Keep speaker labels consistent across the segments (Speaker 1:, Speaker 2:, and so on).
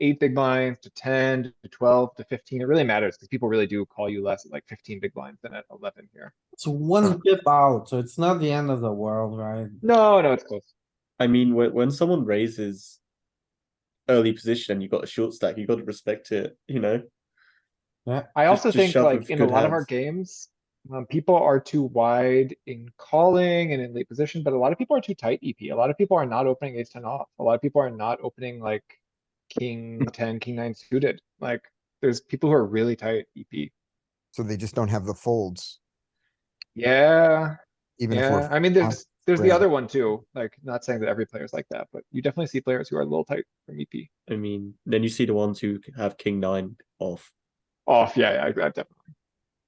Speaker 1: eight big blinds to ten to twelve to fifteen. It really matters because people really do call you less at like fifteen big blinds than at eleven here.
Speaker 2: It's one pip out, so it's not the end of the world, right?
Speaker 1: No, no, it's close.
Speaker 3: I mean, when, when someone raises early position and you've got a short stack, you've got to respect it, you know?
Speaker 1: I
Speaker 3: Just-
Speaker 1: also
Speaker 3: just
Speaker 1: think
Speaker 3: shove
Speaker 1: like
Speaker 3: with
Speaker 1: in a
Speaker 3: good
Speaker 1: lot of our
Speaker 3: hands.
Speaker 1: games, um, people are too wide in calling and in late position, but a lot of people are too tight EP. A lot of people are not opening ace ten off. A lot of people are not opening like king
Speaker 3: Mm.
Speaker 1: ten, king nine suited. Like there's people who are really tight E EP.
Speaker 4: So they just don't have the folds,
Speaker 1: Yeah,
Speaker 4: even if
Speaker 1: yeah.
Speaker 4: we're,
Speaker 1: I mean, there's, there's the
Speaker 4: red.
Speaker 1: other one too. Like not saying that every player's like that, but you definitely see players who are a little tight E from EP.
Speaker 3: I mean, then you see the ones who have king nine off.
Speaker 1: Off, Oh, yeah, yeah, I- I definitely.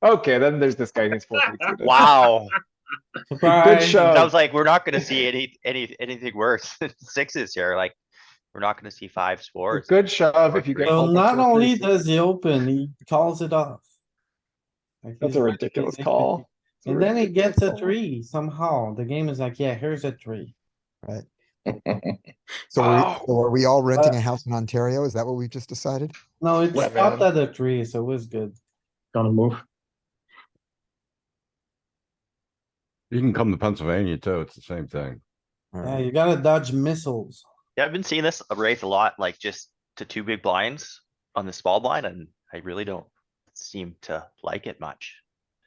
Speaker 1: Okay, then there's this guy who's four.
Speaker 5: Wow,
Speaker 1: Good
Speaker 2: Surprise.
Speaker 1: show.
Speaker 5: I was like, we're not gonna see any, any, anything worse than sixes here, like, we're not gonna see fives, fours.
Speaker 1: Good shove if you get.
Speaker 2: So
Speaker 1: called for
Speaker 2: not
Speaker 1: four
Speaker 2: only
Speaker 1: threes.
Speaker 2: does he open, he calls it off. Like
Speaker 1: That's
Speaker 2: he's
Speaker 1: a
Speaker 2: not
Speaker 1: ridiculous
Speaker 2: taking
Speaker 1: call. It's
Speaker 2: it.
Speaker 1: a
Speaker 2: And then he
Speaker 1: ridiculous
Speaker 2: gets a
Speaker 1: call.
Speaker 2: three somehow. The game is like, yeah, here's a three.
Speaker 4: so are,
Speaker 2: oh,
Speaker 1: Wow.
Speaker 4: we- so are we
Speaker 2: uh
Speaker 4: all renting a house in Ontario? Is that what we just decided?
Speaker 2: No, it's
Speaker 3: Yeah,
Speaker 2: stopped at a three, so it was good.
Speaker 6: Gonna move.
Speaker 7: You can come to Pennsylvania too. It's the same thing.
Speaker 4: All
Speaker 2: Yeah,
Speaker 4: right.
Speaker 2: you gotta dodge missiles.
Speaker 5: Yeah, I've been seeing this raise a lot, like just to two big blinds on the small blind, and I really don't seem to like it much.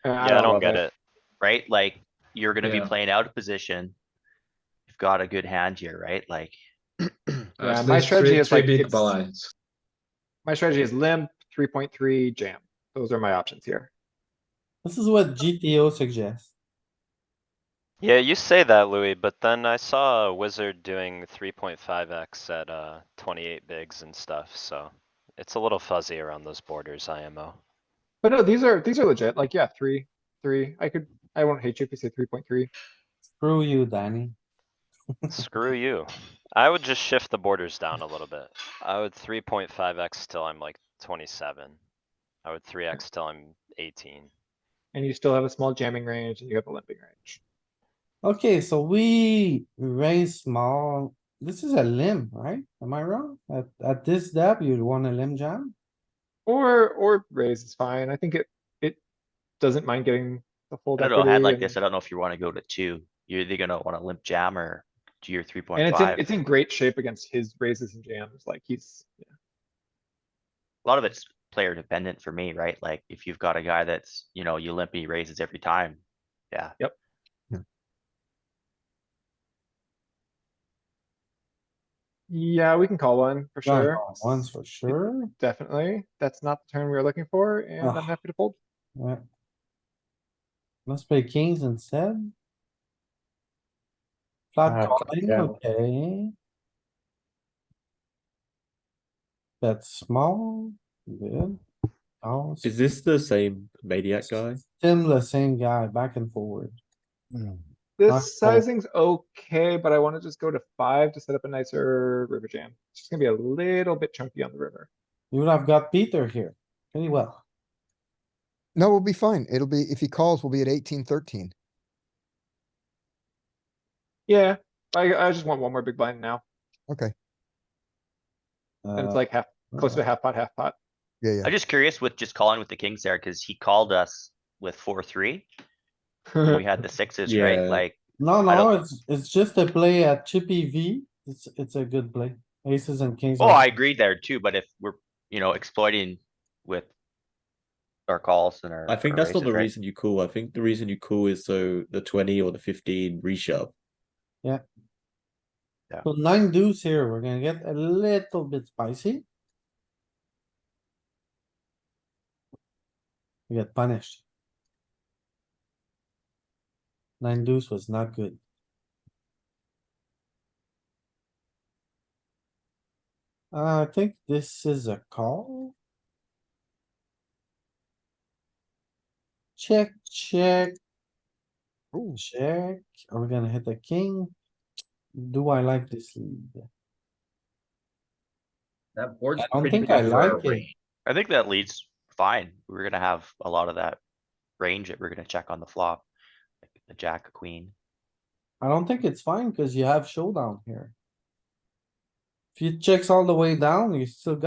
Speaker 5: Yeah, I don't
Speaker 1: love
Speaker 5: get it, right? Like, you're gonna be
Speaker 8: Yeah.
Speaker 5: playing out of position. You've got a good hand here, right? Like,
Speaker 1: Yeah,
Speaker 8: Uh,
Speaker 1: my
Speaker 8: three-
Speaker 1: strategy
Speaker 8: three-
Speaker 1: is
Speaker 8: three
Speaker 1: like,
Speaker 8: big
Speaker 1: it's-
Speaker 8: blinds.
Speaker 1: My strategy is limp, three point three, jam. Those are my options here.
Speaker 2: This is what GTO suggests.
Speaker 9: Yeah, you say that, Louis, but then I saw a wizard doing three point five X at uh twenty-eight bigs and stuff, so. It's a little fuzzy around those borders, IMO.
Speaker 1: But no, these are, these are legit. Like, yeah, three, three. I could, I won't hate you if you say three point three.
Speaker 2: Screw you, Danny.
Speaker 9: Screw you. I would just shift the borders down a little bit. I would three point five X till I'm like twenty-seven. I would three X till I'm eighteen.
Speaker 1: And you still have a small jamming range and you have a limping range.
Speaker 2: Okay, so we raise small. This is a limb, right? Am I wrong? At, at this depth, you'd want a limb jam?
Speaker 1: Or, or raise is fine. I think it, it doesn't mind getting the full.
Speaker 5: I don't know,
Speaker 1: equity
Speaker 5: hand like
Speaker 1: and-
Speaker 5: this, I don't know if you wanna go to two. You're either gonna wanna limp jam or do your three
Speaker 1: And
Speaker 5: point
Speaker 1: it's in,
Speaker 5: five.
Speaker 1: it's in great shape against his raises and jams. Like he's,
Speaker 5: a lot of it's player dependent for me, right? Like if you've got a guy that's, you know, you limpy raises every time. Yeah.
Speaker 1: Yep.
Speaker 4: Yeah.
Speaker 1: Yeah, we can call one for
Speaker 2: Gotta
Speaker 1: sure.
Speaker 2: call Once for sure.
Speaker 1: Definitely. That's not the turn we were looking for and I'm
Speaker 2: Ugh.
Speaker 1: happy to fold.
Speaker 2: Yeah. Let's play kings instead.
Speaker 1: Ah,
Speaker 2: Flat calling,
Speaker 1: yeah.
Speaker 2: okay. That's small, good. Oh,
Speaker 3: Is this the same maniac guy?
Speaker 2: still the same guy, back and forward. Not
Speaker 1: This
Speaker 2: fold.
Speaker 1: sizing's okay, but I wanna just go to five to set up a nicer river jam. It's just gonna be a little bit chunky on the river.
Speaker 2: You would have got Peter here, pretty well.
Speaker 4: No, we'll be fine. It'll be, if he calls, we'll be at eighteen, thirteen.
Speaker 1: Yeah, I, I just want one more big blind now.
Speaker 4: Okay,
Speaker 1: And it's
Speaker 2: Uh,
Speaker 1: like half, close to
Speaker 2: uh,
Speaker 1: half pot, half pot.
Speaker 4: yeah, yeah.
Speaker 5: I'm just curious with just calling with the kings there, cause he called us with four, three. and We had the sixes, right?
Speaker 3: Uh-huh. Yeah.
Speaker 5: Like,
Speaker 2: No,
Speaker 5: I
Speaker 2: no,
Speaker 5: don't-
Speaker 2: it's, it's just a play at Chippy V. It's, it's a good play. Aces and kings.
Speaker 5: oh,
Speaker 2: are-
Speaker 5: I agree there too, but if we're, you know, exploiting with our calls and our.
Speaker 3: I think
Speaker 5: our
Speaker 3: that's not the
Speaker 5: raises,
Speaker 3: reason
Speaker 5: right?
Speaker 3: you call. I think the reason you call is so the 20 or the 15 reshove.
Speaker 2: So nine deuce here. We're gonna get a little bit spicy. We get punished. Nine deuce was not good. Uh, I think this is a call. Check, check.
Speaker 4: Ooh.
Speaker 2: Check, are we gonna hit the king? Do I like this lead?
Speaker 8: That board's
Speaker 2: I don't
Speaker 8: pretty
Speaker 2: think
Speaker 8: big
Speaker 2: I
Speaker 8: for our
Speaker 2: like it.
Speaker 8: range.
Speaker 5: I think that leads fine. We're gonna have a lot of that range that we're gonna check on the flop. like The jack, a queen.
Speaker 2: I don't think it's fine cuz you have showdown here. If he checks all the way down, you still got.